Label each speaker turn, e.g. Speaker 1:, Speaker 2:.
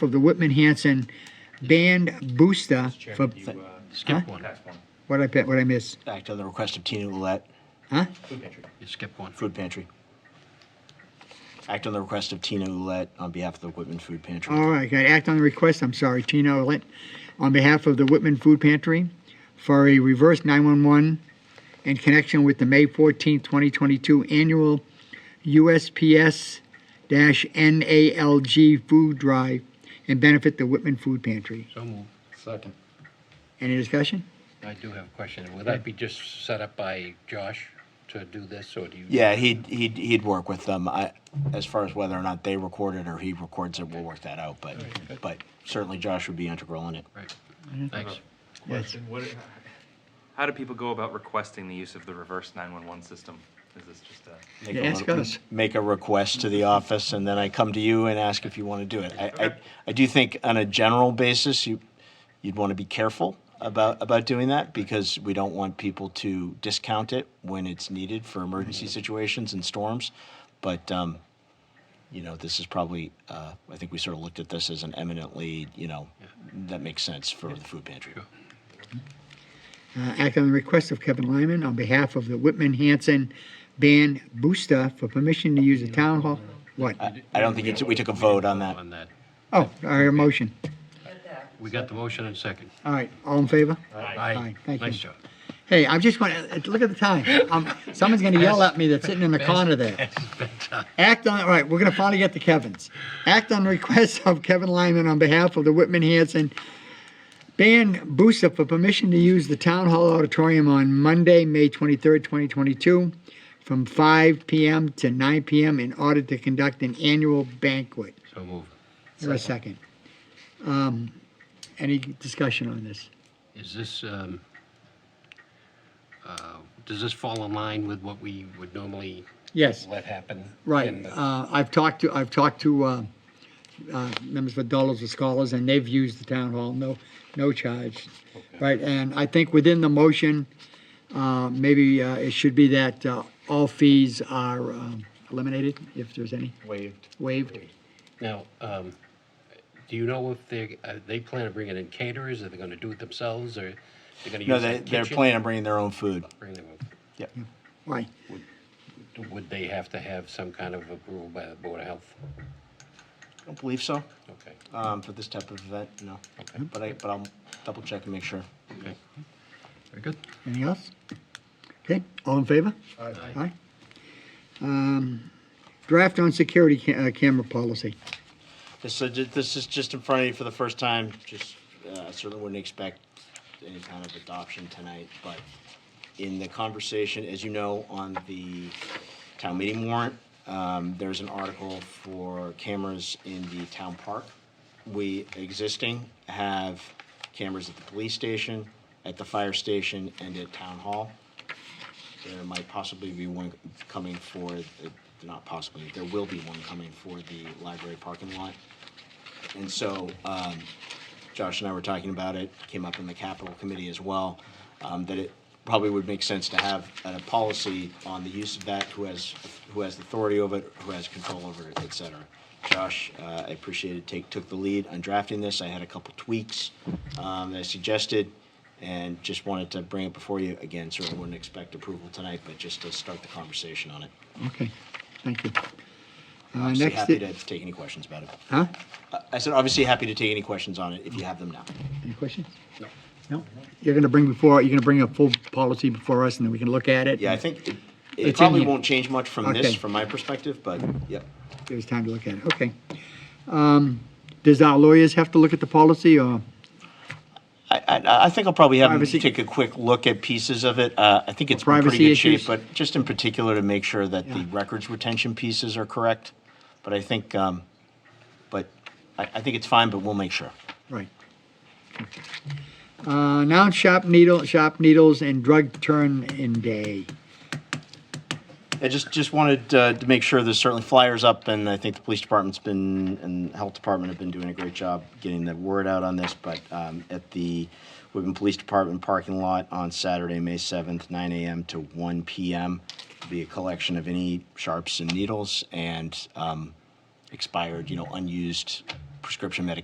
Speaker 1: for the Whitman Hanson Band Booster for,
Speaker 2: Chairman, you, uh,
Speaker 1: Huh?
Speaker 3: Skip one,
Speaker 2: that's one.
Speaker 1: what I, pe- what I miss?
Speaker 4: Act on the request of Tina Ouellette,
Speaker 1: Huh?
Speaker 2: Food pantry.
Speaker 3: you skip one.
Speaker 4: Food Pantry. Act on the request of Tina Ouellette on behalf of the Whitman Food Pantry.
Speaker 1: All right, got act on the request, I'm sorry, Tino Lent, on behalf of the Whitman Food Pantry for a reverse 911 in connection with the May 14, 2022 annual USPS-NALG food drive and benefit the Whitman Food Pantry.
Speaker 3: So moved.
Speaker 5: Second.
Speaker 1: Any discussion?
Speaker 3: I do have a question. Would that be just set up by Josh to do this, or do you?
Speaker 4: Yeah, he'd, he'd, he'd work with them. I, as far as whether or not they record it or he records it, we'll work that out, but, but certainly Josh would be integral in it.
Speaker 3: Right. Thanks.
Speaker 2: Question, what,
Speaker 6: How do people go about requesting the use of the reverse 911 system? Is this just a,
Speaker 4: Make a
Speaker 1: Ask
Speaker 4: re-
Speaker 1: us.
Speaker 4: Make a request to the office, and then I come to you and ask if you want to do it. I, I, I do think on a general basis, you, you'd want to be careful about, about doing that because we don't want people to discount it when it's needed for emergency
Speaker 1: Mm-hmm.
Speaker 4: situations and storms. But, um, you know, this is probably, uh, I think we sort of looked at this as an eminently, you know, that makes sense for the food pantry.
Speaker 1: Uh, act on the request of Kevin Lyman on behalf of the Whitman Hanson Band Booster for permission to use the town hall. What?
Speaker 4: I, I don't think it's, we took a vote on that.
Speaker 3: On that.
Speaker 1: Oh, our motion.
Speaker 3: We got the motion and second.
Speaker 1: All right, all in favor?
Speaker 3: Aye.
Speaker 1: Thank you.
Speaker 3: Nice job.
Speaker 1: Hey, I'm just going to, look at the time. Um, Someone's going to yell at me that's sitting in the corner there. Act on, all right, we're going to finally get to Kevin's. Act on request of Kevin Lyman on behalf of the Whitman Hanson Band Booster for permission to use the Town Hall Auditorium on Monday, May 23rd, 2022, from 5 PM to 9 PM in order to conduct an annual banquet.
Speaker 3: So moved.
Speaker 1: Is there a second? Um, Any discussion on this?
Speaker 3: Is this, um, uh, does this fall in line with what we would normally
Speaker 1: Yes.
Speaker 3: let happen? in
Speaker 1: Right.
Speaker 3: the-
Speaker 1: Uh, I've talked to, I've talked to uh, uh, members of Dollars of Scholars, and they've used the town hall, no, no charge. Right, and I think within the motion, uh, maybe uh, it should be that uh, all fees are um, eliminated, if there's any,
Speaker 4: Waived.
Speaker 1: waived.
Speaker 3: Now, um, do you know if they, uh, they plan on bringing in caterers, are they gonna do it themselves, or they're gonna
Speaker 4: No,
Speaker 3: use
Speaker 4: they,
Speaker 3: their
Speaker 4: they're
Speaker 3: kitchen?
Speaker 4: planning on bringing their own food.
Speaker 3: Bring them up.
Speaker 4: Yep.
Speaker 1: Right.
Speaker 3: Would they have to have some kind of approval by the Board of Health?
Speaker 4: I don't believe so.
Speaker 3: Okay.
Speaker 4: um, for this type of event, no. But I, but I'll double check and make sure.
Speaker 3: Okay. Very good.
Speaker 1: Anything else? Okay, all in favor? Aye. Um, Draft on security ca- uh, camera policy.
Speaker 4: This, so ju- this is just in front of you for the first time, just, uh, certainly wouldn't expect any kind of adoption tonight, but in the conversation, as you know, on the town meeting warrant, um, there's an article for cameras in the town park. We existing have cameras at the police station, at the fire station, and at town hall. There might possibly be one coming for, the- not possibly, there will be one coming for the library parking lot. And so um, Josh and I were talking about it, came up in the capital committee as well, um, that it probably would make sense to have a policy on the use of that, who has, who has authority over it, who has control over it, et cetera. Josh, uh, I appreciate it, take, took the lead on drafting this. I had a couple tweaks um, that I suggested and just wanted to bring it before you. Again, certainly wouldn't expect approval tonight, but just to start the conversation on it.
Speaker 1: Okay, thank you. Uh,
Speaker 4: Obviously,
Speaker 1: next
Speaker 4: happy
Speaker 1: i-
Speaker 4: to take any questions about it.
Speaker 1: Huh?
Speaker 4: Uh, I said, obviously happy to take any questions on it if you have them now.
Speaker 1: Any questions? No. No? You're gonna bring before, you're gonna bring a full policy before us and then we can look at it?
Speaker 4: Yeah, I think it,
Speaker 1: It's in
Speaker 4: it probably
Speaker 1: here.
Speaker 4: won't change much from
Speaker 1: Okay.
Speaker 4: this, from my perspective, but yep.
Speaker 1: It was time to look at it, okay. Um, Does our lawyers have to look at the policy or,
Speaker 4: I, I, I think I'll probably have them
Speaker 1: Privacy-
Speaker 4: take a quick look at pieces of it. Uh, I think it's in
Speaker 1: Privacy
Speaker 4: pretty good shape,
Speaker 1: issues.
Speaker 4: but just in particular to make sure that the
Speaker 1: Yeah.
Speaker 4: records retention pieces are correct. But I think, um, but I, I think it's fine, but we'll make sure.
Speaker 1: right? Uh, now shop needle, shop needles and drug turn-in day.
Speaker 4: I just, just wanted uh, to make sure there's certainly flyers up, and I think the police department's been, and the health department have been doing a great job getting the word out on this, but um, at the Whitman Police Department parking lot on Saturday, May 7th, 9 AM to 1 PM, be a collection of any sharps and needles and um, expired, you know, unused prescription medications